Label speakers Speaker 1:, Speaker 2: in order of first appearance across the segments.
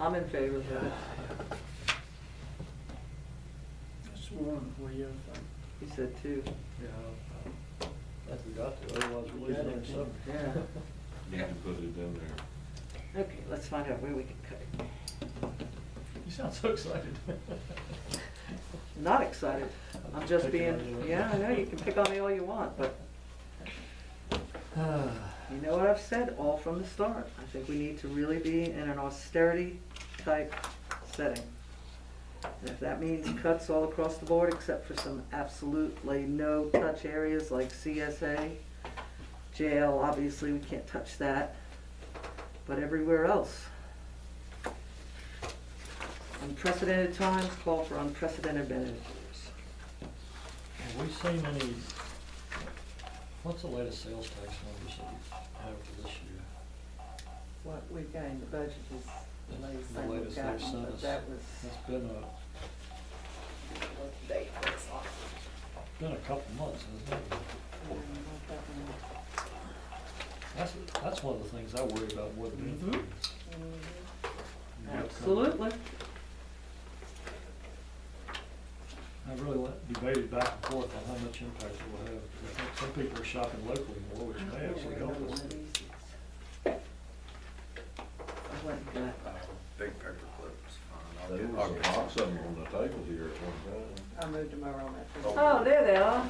Speaker 1: I'm in favor of it.
Speaker 2: That's one for you, I think.
Speaker 1: He said two.
Speaker 3: That's we got to, otherwise we're
Speaker 2: We got
Speaker 3: losing our
Speaker 2: it,
Speaker 3: summer.
Speaker 2: yeah.
Speaker 4: Need to put it in there.
Speaker 1: Okay, let's find out where we can cut it.
Speaker 3: You sound so excited.
Speaker 1: Not excited. I'm just
Speaker 3: Pick
Speaker 1: being,
Speaker 3: on you.
Speaker 1: yeah, I know, you can pick on me all you want, but you know what I've said all from the start. I think we need to really be in an austerity type setting. And if that means cuts all across the board except for some absolutely no touch areas like CSA, jail, obviously we can't touch that, but everywhere else. Unprecedented times call for unprecedented measures.
Speaker 3: Have we seen any, what's the latest sales tax numbers that you have for this year?
Speaker 5: What we got in the budget is the latest
Speaker 3: The
Speaker 5: thing we've
Speaker 3: latest they've
Speaker 5: gotten,
Speaker 3: sent
Speaker 5: but
Speaker 3: us.
Speaker 5: that was
Speaker 3: It's been a,
Speaker 5: what the date was on.
Speaker 3: been a couple months, hasn't it?
Speaker 5: Um, what that one-
Speaker 3: That's, that's one of the things I worry about more than
Speaker 1: Mhm.
Speaker 3: anything.
Speaker 5: Mhm.
Speaker 1: Absolutely.
Speaker 3: I really went- debated back and forth on how much impact it will have. I think Some people are shopping locally more, which may actually help us.
Speaker 5: I wasn't good.
Speaker 6: Big paper clips.
Speaker 4: There was a box of them on the table here at one time.
Speaker 5: I moved them over on that. first
Speaker 6: Oh.
Speaker 1: Oh, there they are.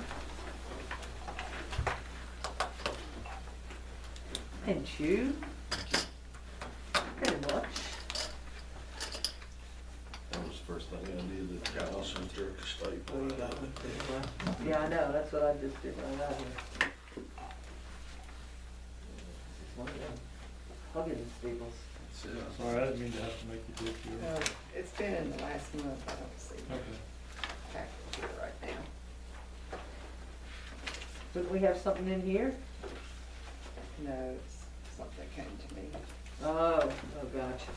Speaker 1: And you. Very much.
Speaker 4: That was the first thing I did that got us into a
Speaker 2: What
Speaker 4: state.
Speaker 2: you got with the, uh,
Speaker 1: Yeah, I know, that's what I just did when I got here. Huggins Staples.
Speaker 3: Sorry, I didn't mean to have to make you do it.
Speaker 5: No, it's been in the last month, I don't see the
Speaker 3: Okay.
Speaker 5: package here right now.
Speaker 1: Didn't we have something in here?
Speaker 5: No, it's something that came to me.
Speaker 1: Oh, oh, gotcha.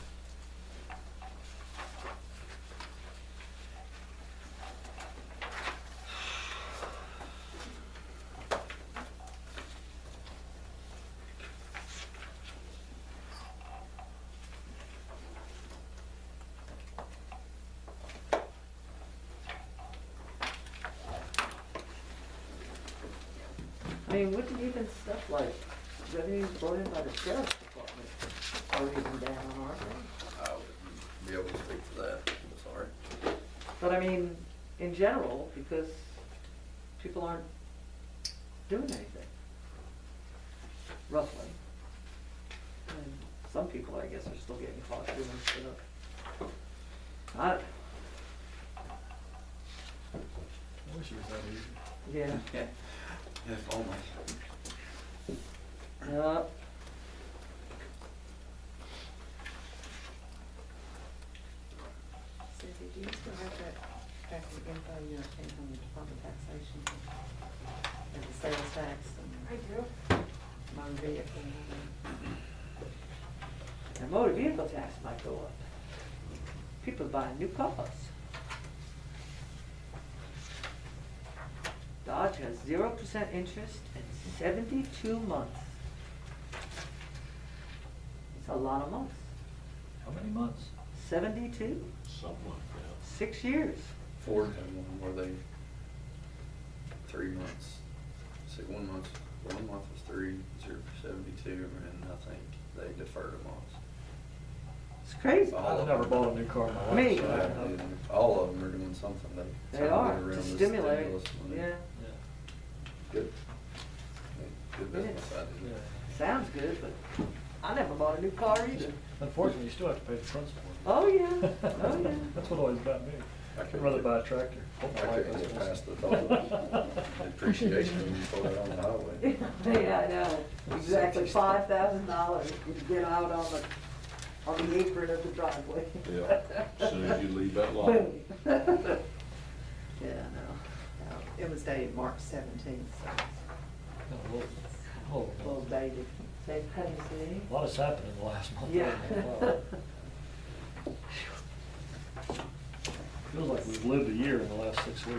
Speaker 1: I mean, wouldn't even stuff like revenues brought in by the sheriff's department are even down, aren't they?
Speaker 6: I wouldn't be able to speak for that, I'm sorry.
Speaker 1: But I mean, in general, because people aren't doing anything, roughly. And some people, I guess, are still getting caught doing stuff. I, don't-
Speaker 3: I wish it was that easy.
Speaker 1: yeah,
Speaker 6: If only.
Speaker 1: yeah.
Speaker 5: Susie, do you still have that packet of info you obtained from the Department of Taxation? And the sales tax and. I do. My vehicle.
Speaker 1: The motor vehicle tax might go up. People buying new cars. Dodge has zero percent interest and seventy-two months. It's a lot of months.
Speaker 3: How many months?
Speaker 1: Seventy-two,
Speaker 4: Something like
Speaker 1: six years.
Speaker 6: Ford had one where they, three months, see, one month, one month was three, zero for seventy-two, and I think they deferred a month.
Speaker 1: It's crazy.
Speaker 6: All
Speaker 3: I've
Speaker 6: of
Speaker 3: never
Speaker 6: them.
Speaker 3: bought a new car in my life.
Speaker 1: Oh. Me.
Speaker 3: so I
Speaker 6: So,
Speaker 3: don't know.
Speaker 6: yeah, All of them are doing something that.
Speaker 1: They
Speaker 6: trying to get
Speaker 1: are,
Speaker 6: around
Speaker 1: to
Speaker 6: this
Speaker 1: stimulate,
Speaker 6: stimulus money.
Speaker 1: yeah.
Speaker 3: Yeah,
Speaker 6: Good. Good business idea.
Speaker 3: yeah.
Speaker 1: Sounds good, but I never bought a new car either.
Speaker 3: Unfortunately, you still have to pay the principal.
Speaker 1: Oh, yeah, oh, yeah.
Speaker 3: That's what always got me.
Speaker 6: I
Speaker 3: I'd
Speaker 6: couldn't
Speaker 3: rather
Speaker 6: get-
Speaker 3: buy a tractor. Hope my
Speaker 6: I
Speaker 3: wife
Speaker 6: couldn't
Speaker 3: doesn't listen.
Speaker 6: get past the thought of appreciation when you pull it on the highway.
Speaker 1: Yeah, I know, exactly, five thousand dollars to get out on the, on the apron of the driveway.
Speaker 4: that. Yeah, soon as you leave that lot.
Speaker 1: Boom. Yeah, no,
Speaker 5: Uh, It was dated March seventeenth, so it's
Speaker 3: No, well, hold
Speaker 5: a
Speaker 3: on.
Speaker 5: little dated.
Speaker 1: say Tennessee.
Speaker 3: A lot has happened in the last month.
Speaker 1: Yeah.
Speaker 3: Wow. Feels like we've lived a year in the last six weeks. and,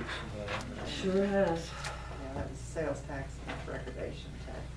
Speaker 3: uh,
Speaker 1: Sure has.
Speaker 5: Yeah, that was sales tax and recordation tax.